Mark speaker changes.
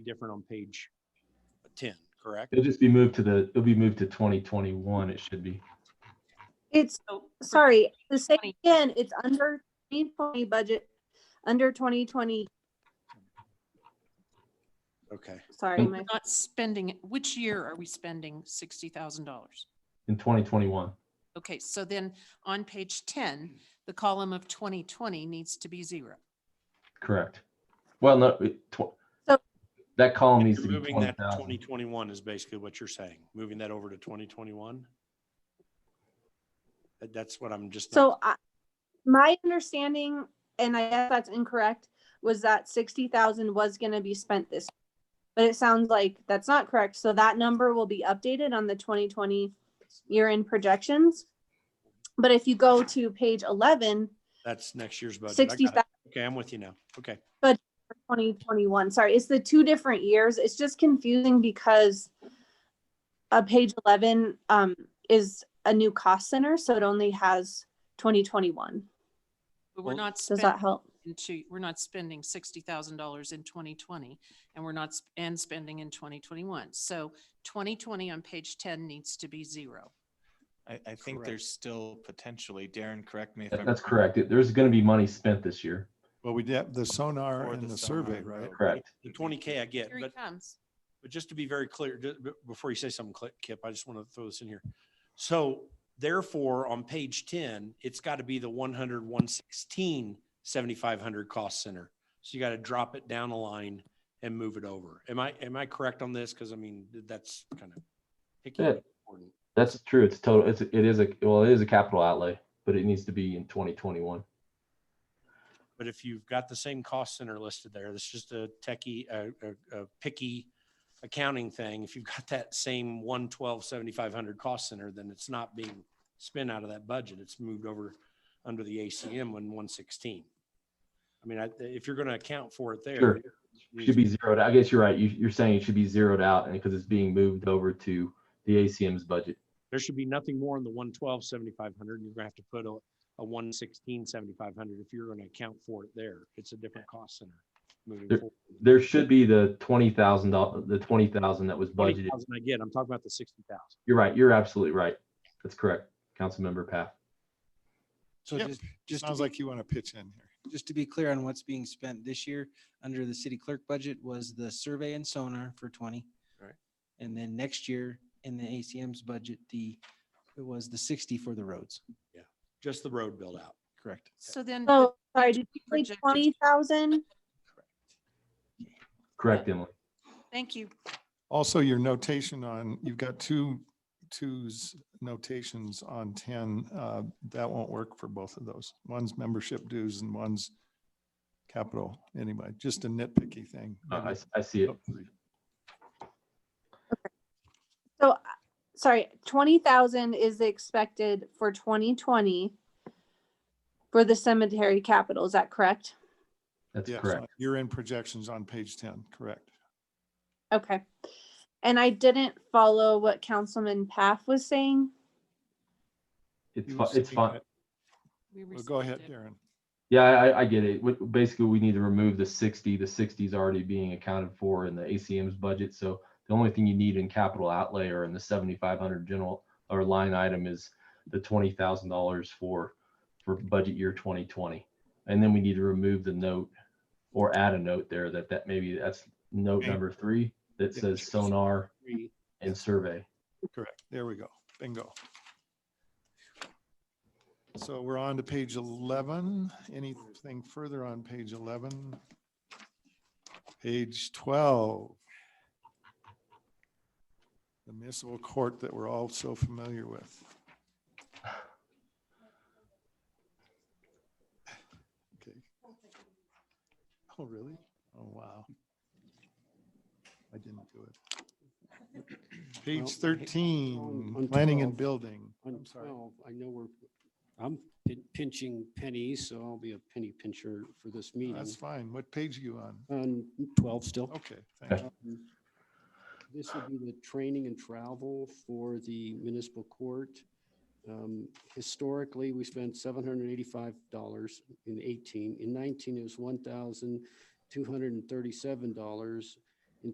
Speaker 1: different on page ten, correct?
Speaker 2: It'll just be moved to the, it'll be moved to twenty twenty-one, it should be.
Speaker 3: It's,
Speaker 4: So, for
Speaker 3: sorry, the same
Speaker 4: 20.
Speaker 3: again, it's under twenty twenty budget, under twenty twenty,
Speaker 1: Okay,
Speaker 3: sorry, my,
Speaker 4: Not spending, it. which year are we spending sixty thousand dollars?
Speaker 2: In twenty twenty-one,
Speaker 4: Okay, so then on page ten, the column of twenty twenty needs to be zero.
Speaker 2: correct. Well, no, it- tw-
Speaker 3: So-
Speaker 2: that column needs to be
Speaker 1: moving
Speaker 2: twenty
Speaker 1: that to twenty
Speaker 2: thousand.
Speaker 1: twenty-one is basically what you're saying, moving that over to twenty twenty-one? That's what I'm just. not-
Speaker 3: so I, my understanding, and I guess that's incorrect, was that sixty thousand was gonna be spent this. But it sounds like that's not correct, so that number will be updated on the twenty twenty year-end projections. But if you go to page eleven,
Speaker 1: That's next year's budget. I
Speaker 3: sixty
Speaker 1: got it.
Speaker 3: thousand
Speaker 1: Okay, I'm with you now. Okay.
Speaker 3: twenty twenty-one, sorry, it's the two different years, it's just confusing because uh, page eleven, um, is a new cost center, so it only has twenty twenty-one.
Speaker 4: But we're
Speaker 1: Well,
Speaker 4: not
Speaker 3: Does that
Speaker 4: spending,
Speaker 3: help?
Speaker 4: into- we're not spending sixty thousand dollars in twenty twenty and we're not, sp- and spending in twenty twenty-one. So twenty twenty on page ten needs to be zero.
Speaker 5: I, I think
Speaker 1: Correct.
Speaker 5: there's still potentially, Darren, correct me if
Speaker 2: That-
Speaker 5: I'm.
Speaker 2: That's correct. It- There's gonna be money spent this year,
Speaker 6: Well, we did the sonar
Speaker 5: Or the
Speaker 6: and the survey,
Speaker 5: sonar
Speaker 6: right?
Speaker 5: road.
Speaker 2: correct?
Speaker 1: The twenty K I get,
Speaker 4: Here he
Speaker 1: but,
Speaker 4: comes.
Speaker 1: but just to be very clear, ju- b- before you say something, Cli- Kip, I just want to throw this in here. So therefore, on page ten, it's got to be the 100, 116, 7500 cost center. So you got to drop it down a line and move it over. Am I, am I correct on this? Because I mean, th- that's kind of picky.
Speaker 2: Yeah.
Speaker 1: but important.
Speaker 2: That's true. It's total, it's, it is a, well, it is a capital outlay, but it needs to be in twenty twenty-one.
Speaker 1: But if you've got the same cost center listed there, that's just a techie, a, a, a picky accounting thing. If you've got that same one twelve seventy-five hundred cost center, then it's not being spent out of that budget. It's moved over under the ACM one one sixteen. I mean, I, if you're gonna account for it
Speaker 2: Sure.
Speaker 1: there. it needs
Speaker 2: Should
Speaker 1: to
Speaker 2: be zeroed. I guess you're right. You, you're saying it should be zeroed out and because it's being moved over to the ACM's budget.
Speaker 1: There should be nothing more in the one twelve seventy-five hundred. You're gonna have to put a, a one sixteen seventy-five hundred if you're gonna account for it there. It's a different cost center moving forward.
Speaker 2: There should be the twenty thousand dollars, the twenty thousand that was budgeted.
Speaker 1: 20,000 I get, I'm talking about the sixty thousand.
Speaker 2: You're right. You're absolutely right. That's correct. Councilmember Path.
Speaker 7: So
Speaker 6: Yep.
Speaker 7: just, just, to
Speaker 6: Sounds
Speaker 7: be-
Speaker 6: like you want to pitch in here.
Speaker 7: just to be clear on what's being spent this year, under the city clerk budget was the survey and sonar for twenty.
Speaker 1: Right.
Speaker 7: And then next year in the ACM's budget, the, it was the sixty for the roads,
Speaker 1: just the road build out.
Speaker 7: correct?
Speaker 4: So then.
Speaker 3: So, sorry, did you say
Speaker 4: Projected.
Speaker 3: twenty thousand?
Speaker 2: Correct, Emily.
Speaker 4: Thank you.
Speaker 6: Also, your notation on, you've got two, twos notations on ten, uh, that won't work for both of those. One's membership dues and one's capital. Anyway, just a nitpicky thing.
Speaker 2: Uh, I, s- I see it.
Speaker 3: So, uh, sorry, twenty thousand is expected for twenty twenty for the cemetery capital, is that correct?
Speaker 2: That's
Speaker 6: Yes,
Speaker 2: correct.
Speaker 6: You're in projections on page ten, correct.
Speaker 3: Okay. And I didn't follow what Councilman Paff was saying.
Speaker 2: It's
Speaker 6: You
Speaker 2: fine.
Speaker 6: were
Speaker 2: It's
Speaker 6: saying
Speaker 2: fine.
Speaker 6: that-
Speaker 4: We
Speaker 6: well, Go ahead,
Speaker 4: received it.
Speaker 6: Darren.
Speaker 2: Yeah, I, I- I get it. What- Basically, we need to remove the sixty. The sixty is already being accounted for in the ACM's budget. So the only thing you need in capital outlay or in the seventy-five hundred general or line item is the twenty thousand dollars for, for budget year twenty twenty. And then we need to remove the note or add a note there that, that maybe that's note
Speaker 6: Okay.
Speaker 2: number three that
Speaker 6: Yeah,
Speaker 2: says
Speaker 6: sure.
Speaker 2: sonar
Speaker 1: Three.
Speaker 2: and survey.
Speaker 6: Correct. There we go. Bingo. So we're on to page 11. Anything further on page 11? Page 12. The municipal court that we're all so familiar with. Okay. Oh, really? Oh, wow. I didn't do it.
Speaker 8: Well,
Speaker 6: Page
Speaker 8: hey,
Speaker 6: 13,
Speaker 8: on
Speaker 6: planning and
Speaker 8: 12.
Speaker 6: building.
Speaker 8: On
Speaker 6: I'm sorry.
Speaker 8: twelve, I know we're, I'm pin- pinching pennies, so I'll be a penny pincher for this meeting.
Speaker 6: That's fine. What page are you on?
Speaker 8: On twelve still.
Speaker 6: Okay, thank you.
Speaker 8: Um, This would be the training and travel for the municipal court. Um, Historically, we spent seven hundred and eighty-five dollars in eighteen. In nineteen, it was one thousand two hundred and thirty-seven dollars.